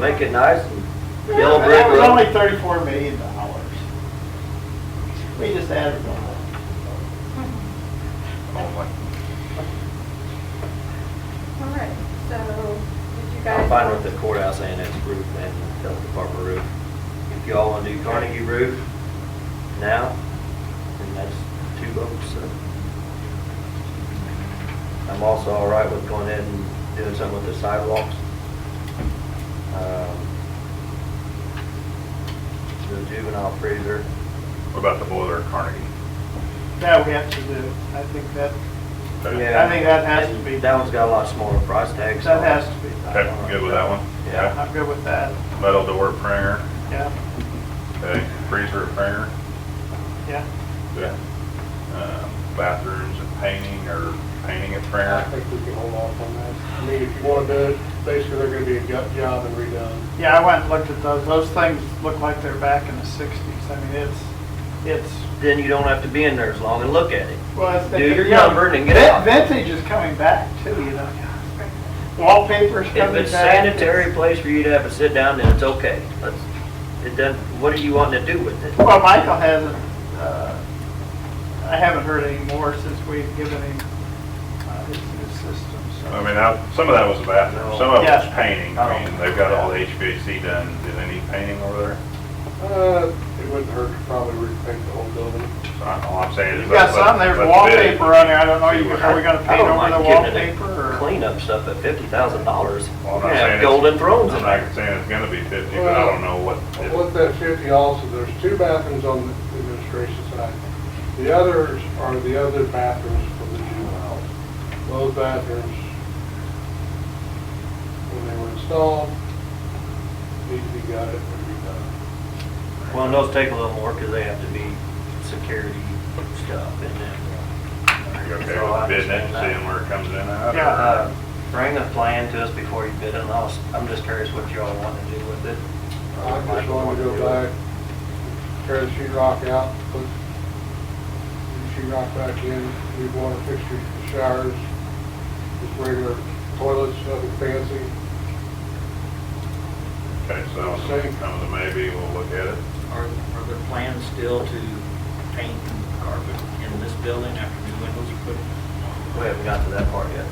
make it nice and yellow And brick That was only road. thirty-four million dollars. We just added one. All right, so did you guys? I'm fine with the courthouse annex roof and the health department roof. If y'all wanna do Carnegie roof now, then that's two votes, so. I'm also all right with going ahead and doing something with the sidewalks. Um, The juvenile freezer, What about the boiler at Carnegie? That we have to do. I think that, Okay. yeah. I think that has to be- That one's got a lot smaller price tag, so. that has to be. Okay, you good with that one? Yeah. I'm good with that. Okay. Metal door Pranger, Yeah, okay, freezer at Pranger, yeah. okay. Um, Bathrooms and painting or painting at I Pranger, think we can hold off on that. I mean, if you want to do it, basically they're going to be a gut job and redone. Yeah, I went and looked at those. Those things look like they're back in the sixties. I mean, it's, it's. Then you don't have to be in there as long and look at it. well, it's- Do your yeah, number and get vin- out. Vintage is coming back too, you know. Wallpaper's If coming back. it's sanitary place for you to have a sit down, then it's okay. Let's, it doesn't, what are you wanting to do with it? Well, Michael hasn't, uh, I haven't heard any more since we've given him uh, his new system, I so. mean, I- some of that was a bathroom, some of it was Yeah. painting, I mean, they've got all the HVAC done, do they need painting over there? Uh, it wouldn't hurt to probably repaint the whole building. So I- All I'm saying is. You got let's- some, there's let's bid. wallpaper on there, I don't know, you- See are we gonna I paint don't over mind the getting it wallpaper or? Clean up stuff at fifty thousand dollars. Well, I'm not saying Yeah, it's- golden thrones I'm in not there. saying it's gonna be fifty, but I don't know what. if- With that fifty also, there's two bathrooms on the administration side. The others are the other bathrooms for the juveniles. Those bathrooms, when they were installed, need to be gutted and redone. Well, and those take a little more because they have to be security stuff in there. Are you okay So I with bidding it, understand that. seeing where it comes in at? Yeah. Uh, Bring a plan to us before you bid it, and I'll, s- I'm just curious what y'all want to do with it. I just want to go back, tear the sheet rock out, put the sheet rock back in, new water fixtures, for showers, just regular toilets, nothing fancy. Okay, so Same. comes a maybe, we'll look at it. Are, are there plans still to paint carpet in this building after new windows are put in? We haven't got to that part yet.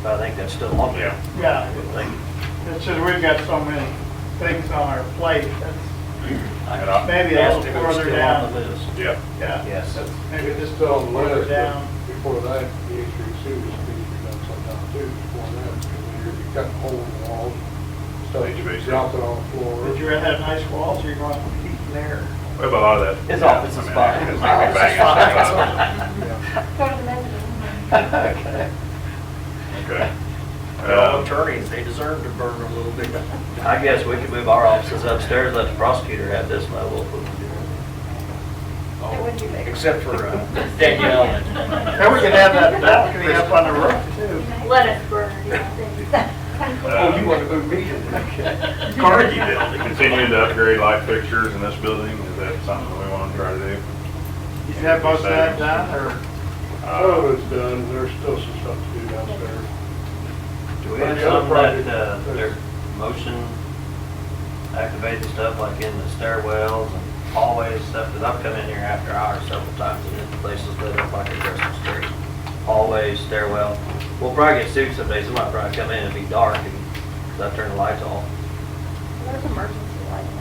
But I think that's still on there. Yeah, Like, it's just, we've got so many things on our plate, that's, And I- maybe a asked if little it was further still on the down. list. Yeah, Yeah. Yes. that's Maybe Maybe just just tell them further later, down. but before that, the HVAC is being done sometime too, before that, because then you're you're cutting holes in the walls, HVAC. stuff dropping on the floor. Did you rather have nice walls or you want heat in there? we have a lot of that. His office is I mean, fine. it's My like office is banging stuff fine. out. Yeah. Go to the mezzanine. Okay. Okay. Well, Uh, attorneys, they deserve to burn a little bit. I guess we could move our offices upstairs, let the prosecutor have this level. if we want to do it. It wouldn't be big. Except for uh, Danielle and. And we could have that balcony up on the roof too. Let us burn, yeah. Oh, you want to move me? Okay. Carnegie Building, continuing to upgrade light fixtures in this building, is that something we want to try to do? You have both sides done, Oh, or? Some Uh, of it's done, there's still some stuff to do downstairs. Do we have some that, uh, their motion activated stuff like in the stairwells and hallways stuff? Because I've come in here after hours several times and this place is lit up like a Christmas tree. Hallways, stairwell. We'll probably get sued someday. Somebody probably come in and be dark and 'cause I turn the lights off. There's emergency lighting.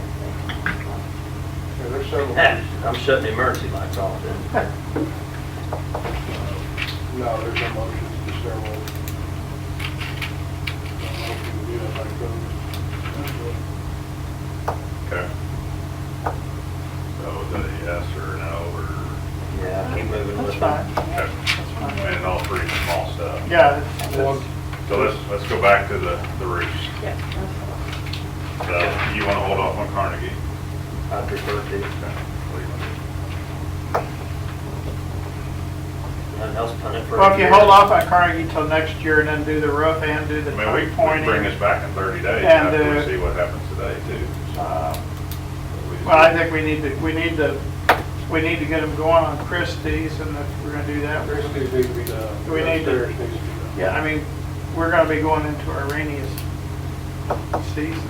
Yeah, there's several, I'm shutting the emergency lights off then. no, there's no motions, just several. I don't know if you can do that by code. okay. So is it a yes or a no, or, Yeah, keep moving That's with fine. it. okay, and all three small stuff. Yeah. it's- One, So let's, let's go back to the, the roofs. So you want to hold off on Carnegie? I prefer to. Okay. What do Nothing you want else punted for. a Well, if you year. hold off on Carnegie till next year and then do the roof and do the to do? I mean, we point we bring pointing. this back in 30 days And, after uh, we see what happens today too. uh, We just- Well, I think we need to, we need to, we need to get them going on Christie's and if we're gonna do that, there's we're, needs to be uh, done. Do we need to- Upstairs needs to be done. yeah, I mean, we're gonna be going into our rainiest season.